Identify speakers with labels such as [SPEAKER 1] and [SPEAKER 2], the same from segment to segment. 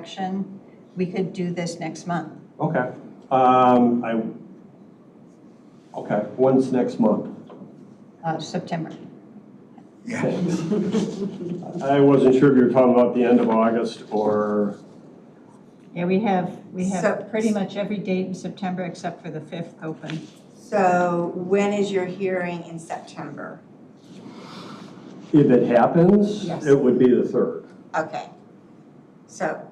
[SPEAKER 1] correction, we could do this next month.
[SPEAKER 2] Okay, um, I, okay, when's next month?
[SPEAKER 1] Uh, September.
[SPEAKER 3] Yeah,
[SPEAKER 2] Thanks. I wasn't sure if you were talking about the end of August or,
[SPEAKER 1] Yeah, we have, we
[SPEAKER 4] So-
[SPEAKER 1] have pretty much every date in September except for the 5th open.
[SPEAKER 4] So when is your hearing in September?
[SPEAKER 2] if it happens,
[SPEAKER 1] Yes.
[SPEAKER 2] it would be the third.
[SPEAKER 4] Okay. So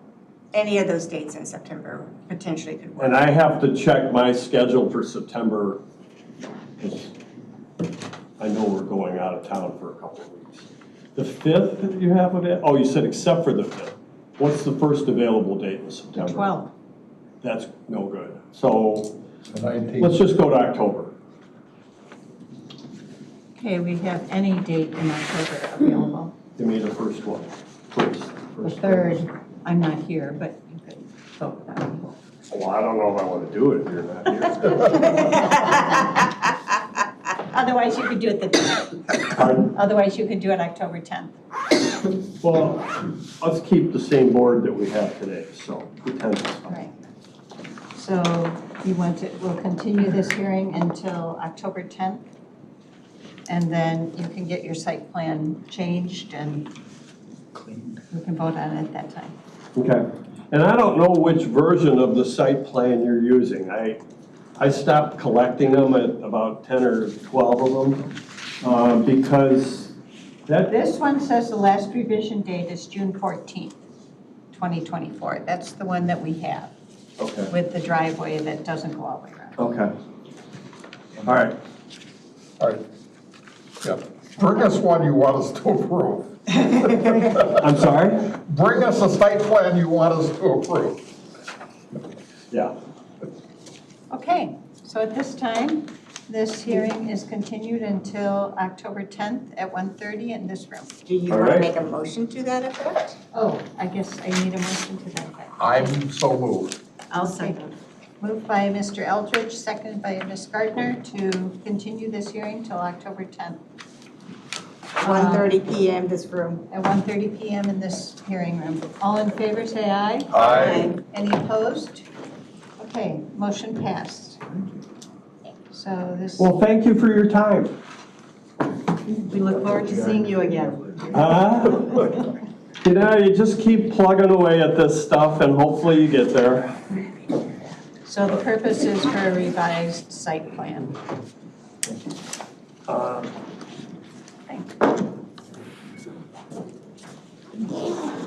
[SPEAKER 4] any of those dates in September potentially could work.
[SPEAKER 2] And I have to check my schedule for September, 'cause I know we're going out of town for a couple of weeks. The fifth that you have of it, oh, you said except for the fifth. What's the first available date in September?
[SPEAKER 1] 12th.
[SPEAKER 2] That's no good. So
[SPEAKER 3] the nineteenth,
[SPEAKER 2] let's just go to October.
[SPEAKER 1] Okay, we have any date in October available.
[SPEAKER 2] Give me the first one. First.
[SPEAKER 1] The
[SPEAKER 2] first one.
[SPEAKER 1] 3rd, I'm not here, but you could vote that. one.
[SPEAKER 2] Well, I don't know if I want to do it if you're not here.
[SPEAKER 1] Otherwise, you could do it the 10th.
[SPEAKER 2] Pardon?
[SPEAKER 1] Otherwise, you could do it October 10th.
[SPEAKER 2] Well, let's keep the same board that we have today, so pretend it's fine.
[SPEAKER 1] Right. So you want to, we'll continue this hearing until October 10th. And then you can get your site plan changed and we can vote on it at that time.
[SPEAKER 2] Okay, and I don't know which version of the site plan you're using. I, I stopped collecting them at about 10 or 12 of them, um, because that,
[SPEAKER 1] This one says the last revision date is June 14th, 2024. That's the one that we have
[SPEAKER 2] okay,
[SPEAKER 1] with the driveway that doesn't go all the way around.
[SPEAKER 2] okay. All right,
[SPEAKER 3] all right. Yeah. Bring us one you want us to approve.
[SPEAKER 2] I'm sorry?
[SPEAKER 3] Bring us a site plan you want us to approve.
[SPEAKER 2] Yeah,
[SPEAKER 1] Okay, so at this time, this hearing is continued until October 10th at 1:30 in this room.
[SPEAKER 4] Do you
[SPEAKER 2] All
[SPEAKER 4] want to
[SPEAKER 2] right.
[SPEAKER 4] make a motion to that effect?
[SPEAKER 1] Oh, I guess I need a motion to that effect.
[SPEAKER 3] I'm so moved.
[SPEAKER 4] I'll
[SPEAKER 1] second. Moved by Mr. Eldridge, seconded by Ms. Gardner to continue this hearing till October 10th
[SPEAKER 4] 1:30 PM, this room.
[SPEAKER 1] at 1:30 PM in this hearing room. All in favor, say aye.
[SPEAKER 3] I,
[SPEAKER 1] Any opposed? Okay, motion passed. So this,
[SPEAKER 2] well, thank you for your time.
[SPEAKER 1] we look forward to seeing you again.
[SPEAKER 2] Huh? Uh-huh. You know, you just keep plugging away at this stuff and hopefully you get there.
[SPEAKER 1] So the purpose is for a revised site plan.
[SPEAKER 2] Uh,